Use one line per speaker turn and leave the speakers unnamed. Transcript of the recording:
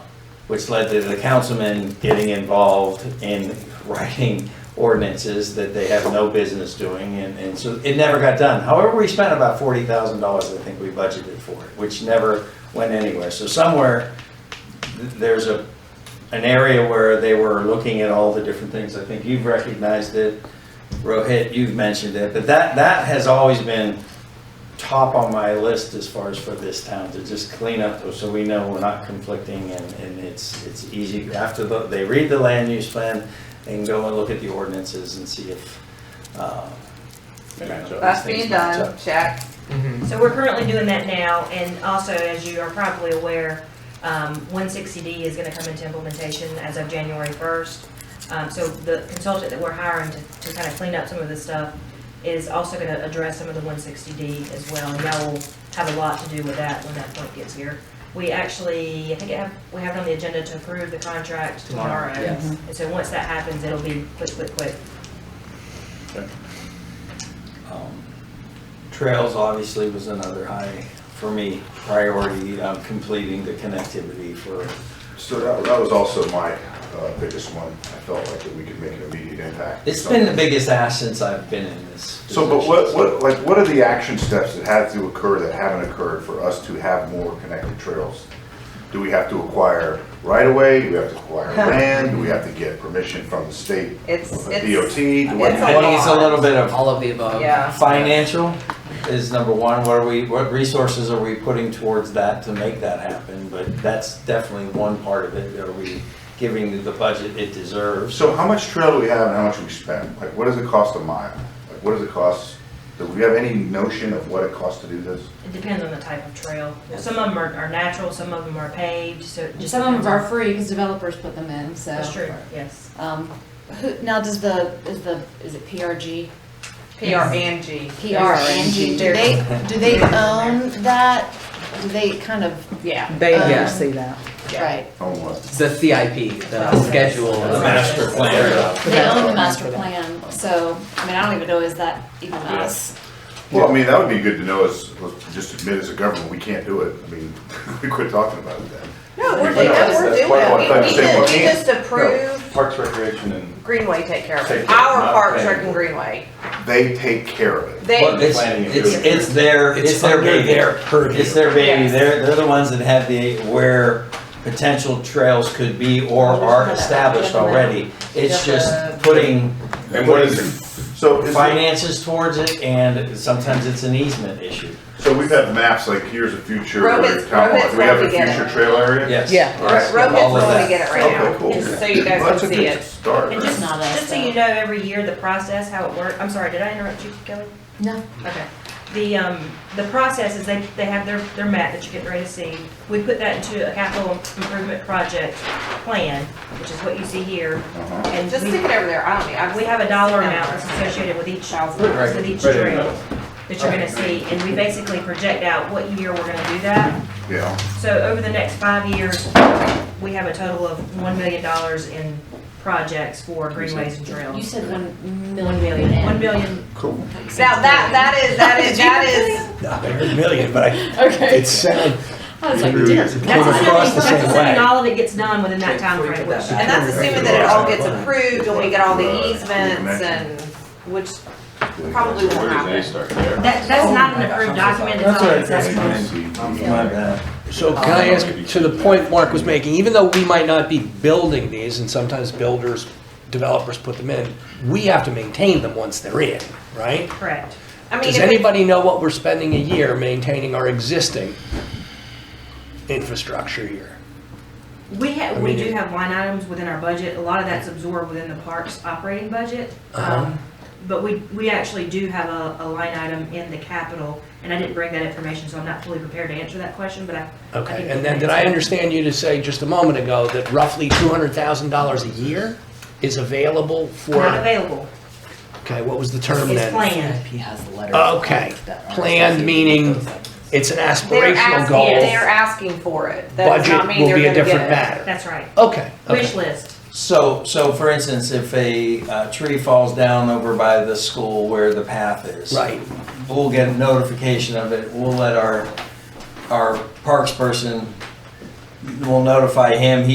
which led to the councilmen getting involved in writing ordinances that they have no business doing, and, and so it never got done. However, we spent about forty thousand dollars, I think we budgeted for it, which never went anywhere. So somewhere, th- there's a, an area where they were looking at all the different things. I think you've recognized it, Rohit, you've mentioned it, but that, that has always been top on my list as far as for this town to just clean up those, so we know we're not conflicting and, and it's, it's easy. After the, they read the land use plan, they can go and look at the ordinances and see if, uh. you know, these
That's
things
being
match
done,
up.
check. Mm-hmm.
So we're currently doing that now, and also, as you are probably aware, um, 160D is gonna come into implementation as of January 1st. Um, So the consultant that we're hiring to, to kind of clean up some of this stuff is also gonna address some of the 160D as well, and y'all will have a lot to do with that when that point gets here. We actually, I think it have, we have it on the agenda to approve the contract tomorrow.
yes.
And so once that happens, it'll be quick, quick, quick.
Um, Trails obviously was another high, for me, priority, um, completing the connectivity for,
So that, that was also my uh, biggest one. I felt like that we could make an immediate impact.
it's been the biggest ask since I've been in this.
So, but
position,
what,
so.
what, like, what are the action steps that have to occur that haven't occurred for us to have more connected trails? Do we have to acquire right of way? Do we have to acquire land? Do we have to get permission from the state?
It's-
or the
it's-
DOT? What-
it's
I think it's a little bit of
All of the above.
Yeah.
Financial is number one, what are we, what resources are we putting towards that to make that happen? But that's definitely one part of it, are we giving the budget it deserves?
So how much trail do we have and how much we spend? Like, what does it cost a mile? Like, what does it cost? Do we have any notion of what it costs to do this?
It depends on the type of trail. Some of them are, are natural, some of them are paved, so it just.
Some of
depends
them
on-
are free because developers put them in, so.
That's true, yes.
Um, who, now does the, is the, is it PRG?
PR and G.
PR and G, do they, do they own that? Do they kind of,
Yeah.
They
Um,
oversee that.
right,
Oh, what?
It's the CIP, the schedule.
The master plan,
they own the master plan, so, I mean, I don't even know, is that even us?
Well, I mean, that would be good to know, is, was just admit as a government, we can't do it. I mean, we quit talking about it then.
No, we're
But
doing,
that's-
we're
that's
doing.
why I wanted to
We- We
understand what
just, we
can-
just approved
Parks, Recreation, and
Greenway take care of
Take
it.
care,
Our
not
Park
paying.
Trek and Greenway.
They take care of it.
They,
What
it's,
Planning and
it's,
doing.
it's their,
It's
it's their
under
baby.
their purview.
It's their baby,
Yes.
they're, they're the ones that have the, where potential trails could be or are established already. It's just putting.
And what is it?
So is it,
Finances towards it and sometimes it's an easement issue.
so we've had maps like here's a future,
Rohit's-
town hall.
Rohit's
do we have a
working it.
future trail area?
Yes.
Yeah.
All right.
Yes,
Rohit's
all of
going
that.
to get it right now.
Okay, cool.
Just so you guys can
Well, that's a
see
good
it.
Start.
And just,
right?
not us,
just so
though.
you know, every year, the process, how it works, I'm sorry, did I interrupt you, Kelly?
No.
Okay. The, um, the process is they, they have their, their map that you're getting ready to see. We put that into a capital improvement project plan, which is what you see here.
Uh-huh.
And
Just
we-
stick it over there. I don't need, I,
We have a dollar amount that's associated with each,
Right.
with each
Right in the
trail
middle.
that you're gonna see, and we basically project out what year we're gonna do that.
Yeah.
So over the next five years, we have a total of one million dollars in projects for greenways and
You
trails.
said one million.
One million, one million,
Cool.
now that, that is, that is, that is.
Not a million, but I,
Okay.
it sounded.
I was like,
Weird.
damn.
that's assuming,
across the
that's
same
assuming
way.
all of it gets done within that
Before you
timeframe,
put
which.
that back.
And that's assuming that it all gets approved and we get all the easements and, which probably
So
won't
where did they
happen.
start there?
That, that's not an
Oh,
approved document, it's all accessible.
E,
Um, My bad.
So can I ask, to the point Mark was making, even though we might not be building these, and sometimes builders, developers put them in, we have to maintain them once they're in, right?
Correct.
I mean,
Does
if it's-
anybody know what we're spending a year maintaining our existing infrastructure here?
We ha
I
we
mean,
do
it-
have line items within our budget, a lot of that's absorbed within the parks operating budget.
Uh-huh.
Um, But we, we actually do have a, a line item in the capital, and I didn't bring that information, so I'm not fully prepared to answer that question, but I. I
Okay,
can-
and then did I understand you to say just a moment ago that roughly $200,000 a year is available
Not
for,
available,
okay, what was the term
it's
then?
planned.
CIP has letters.
Okay, planned meaning it's an
they're
aspirational
asking,
goal,
they're asking for it. That does
budget
not mean
will
they're
be a
gonna get it.
different matter.
That's right.
Okay. okay.
Wish list,
So, so for instance, if a uh, tree falls down over by the school where the path is.
Right.
We'll get notification of it. We'll let our, our parks person, we'll notify him. He